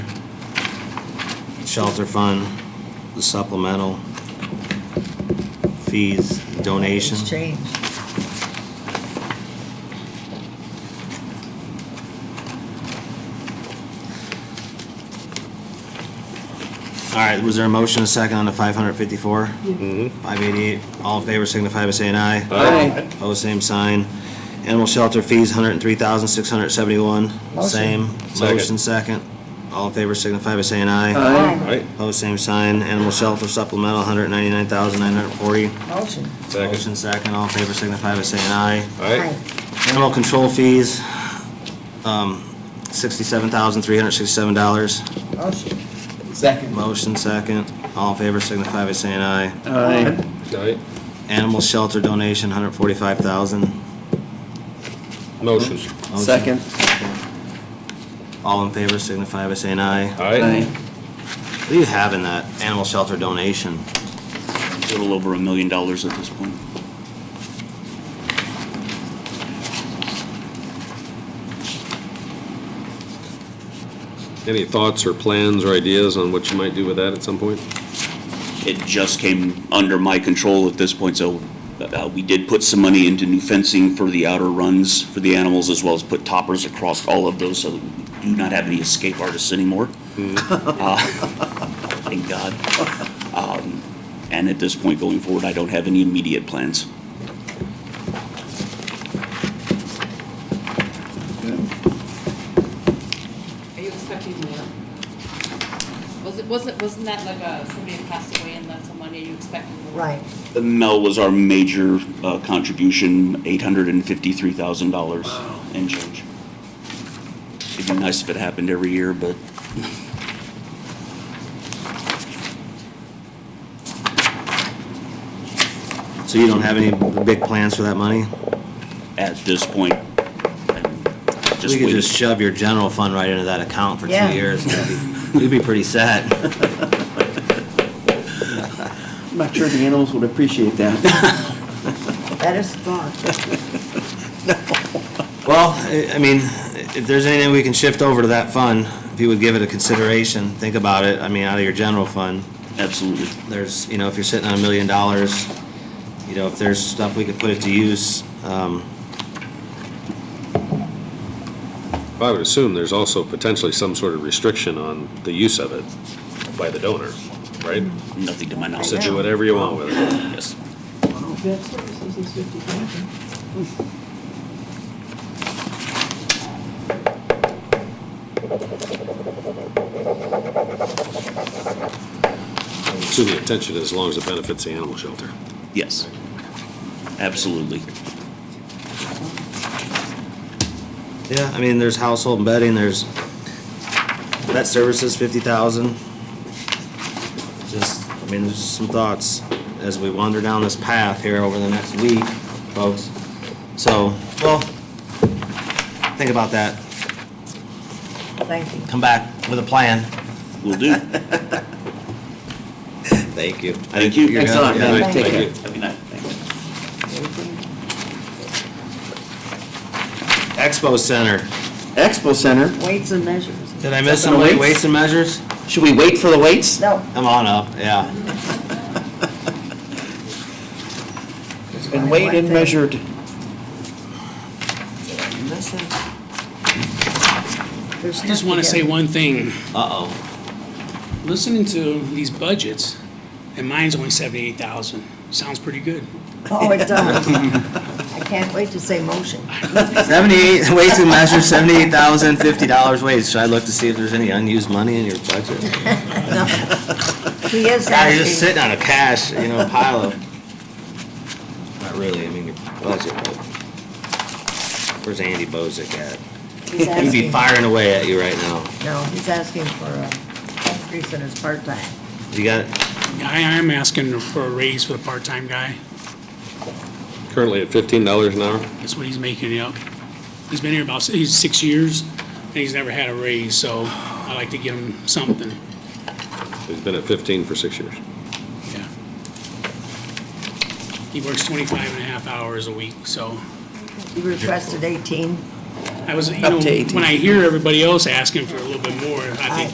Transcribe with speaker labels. Speaker 1: shelter fund, the supplemental, fees, donation.
Speaker 2: It's changed.
Speaker 1: All right, was there a motion, a second on the 554? Mm-hmm. 588, all in favor signify by saying aye.
Speaker 3: Aye.
Speaker 1: Pose same sign. Animal shelter fees, 103,671,
Speaker 2: Motion.
Speaker 1: same.
Speaker 3: Second.
Speaker 1: Motion second, all in favor signify by saying aye.
Speaker 2: Aye.
Speaker 3: Right,
Speaker 1: Pose same sign. Animal shelter supplemental, 199,940.
Speaker 2: Motion.
Speaker 3: second.
Speaker 1: Motion second, all in favor signify by saying aye.
Speaker 3: Right,
Speaker 1: Animal control fees, um, $67,367.
Speaker 2: Aye. Motion.
Speaker 4: Second.
Speaker 1: Motion second, all in favor signify by saying aye.
Speaker 4: Aye.
Speaker 3: right,
Speaker 1: Animal shelter donation, 145,000.
Speaker 3: motion.
Speaker 1: Motion.
Speaker 4: Second.
Speaker 1: All in favor signify by saying aye.
Speaker 3: Aye.
Speaker 1: What do you have in that animal shelter donation?
Speaker 5: a little over a million dollars at this point.
Speaker 3: Any thoughts or plans or ideas on what you might do with that at some point?
Speaker 5: It just came under my control at this point, so uh, we did put some money into new fencing for the outer runs for the animals, as well as put toppers across all of those, so we do not have any escape artists anymore. Uh, Thank God. Um, And at this point going forward, I don't have any immediate plans.
Speaker 6: Are you expecting more? Was it, wasn't, wasn't that like a, somebody had passed away and left some money, are you expecting more?
Speaker 2: Right.
Speaker 5: Mel was our major uh, contribution, eight hundred and fifty-three thousand dollars and change. It'd be nice if it happened every year, but
Speaker 1: So you don't have any big plans for that money?
Speaker 5: at this point, I'm
Speaker 1: We
Speaker 5: just
Speaker 1: could just
Speaker 5: waiting.
Speaker 1: shove your general fund right into that account for two
Speaker 2: Yeah.
Speaker 1: years. You'd be- You'd be pretty set.
Speaker 4: I'm not sure the animals would appreciate that.
Speaker 2: That is gone.
Speaker 1: Well, I I mean, if there's anything we can shift over to that fund, if you would give it a consideration, think about it, I mean, out of your general fund.
Speaker 5: Absolutely.
Speaker 1: there's, you know, if you're sitting on a million dollars, you know, if there's stuff we could put it to use, um,
Speaker 3: I would assume there's also potentially some sort of restriction on the use of it by the donor, right?
Speaker 5: Nothing to my
Speaker 3: So
Speaker 5: knowledge.
Speaker 3: do whatever you want with it.
Speaker 5: Yes.
Speaker 7: Vet services is fifty thousand.
Speaker 3: So the intention is as long as it benefits the animal shelter.
Speaker 5: Yes. Absolutely.
Speaker 1: yeah, I mean, there's household and bedding, there's vet services, fifty thousand. Just, I mean, there's some thoughts as we wander down this path here over the next week, folks. So, well, think about that,
Speaker 2: Thank you.
Speaker 1: come back with a plan.
Speaker 5: Will do.
Speaker 1: Thank you.
Speaker 5: Thank you.
Speaker 1: You're good.
Speaker 4: Thanks a lot,
Speaker 1: Yeah.
Speaker 4: man.
Speaker 2: Thank
Speaker 4: Take
Speaker 2: you.
Speaker 4: care.
Speaker 5: Have a good night. Thanks.
Speaker 1: Expo Center,
Speaker 4: Expo Center.
Speaker 2: Weights and measures.
Speaker 1: did I miss some
Speaker 4: Something
Speaker 1: weight-
Speaker 4: weights?
Speaker 1: weights and measures?
Speaker 4: Should we wait for the weights?
Speaker 2: No.
Speaker 1: Come on up, yeah.
Speaker 2: it's
Speaker 4: And
Speaker 2: fine.
Speaker 4: weighed
Speaker 2: One
Speaker 4: and
Speaker 2: thing.
Speaker 4: measured.
Speaker 2: They're
Speaker 8: I just
Speaker 2: stuck
Speaker 8: want to say
Speaker 2: together.
Speaker 8: one thing.
Speaker 1: Uh-oh.
Speaker 8: Listening to these budgets, and mine's only seventy-eight thousand, sounds pretty good.
Speaker 2: Oh, it does. I can't wait to say motion.
Speaker 1: Seventy-eight, weights and measures, seventy-eight thousand, fifty dollars weights. Should I look to see if there's any unused money in your budget?
Speaker 2: He is
Speaker 1: God, you're just
Speaker 2: asking.
Speaker 1: sitting on a cash, you know, pile of, not really, I mean, your budget, but. Where's Andy Bozick at?
Speaker 2: He's
Speaker 1: He'd be
Speaker 2: asking.
Speaker 1: firing away at you right now.
Speaker 2: No, he's asking for a increase in his part-time.
Speaker 1: You got,
Speaker 8: I am asking for a raise for the part-time guy,
Speaker 3: Currently at fifteen dollars an hour?
Speaker 8: that's what he's making it up. He's been here about, he's six years, and he's never had a raise, so I'd like to get him something,
Speaker 3: It's been at fifteen for six years.
Speaker 8: yeah. He works 25 and a half hours a week, so
Speaker 2: He requested 18.
Speaker 8: I was, you
Speaker 4: Up
Speaker 8: know,
Speaker 4: to 18.
Speaker 8: when I hear everybody else asking for a little bit more, I think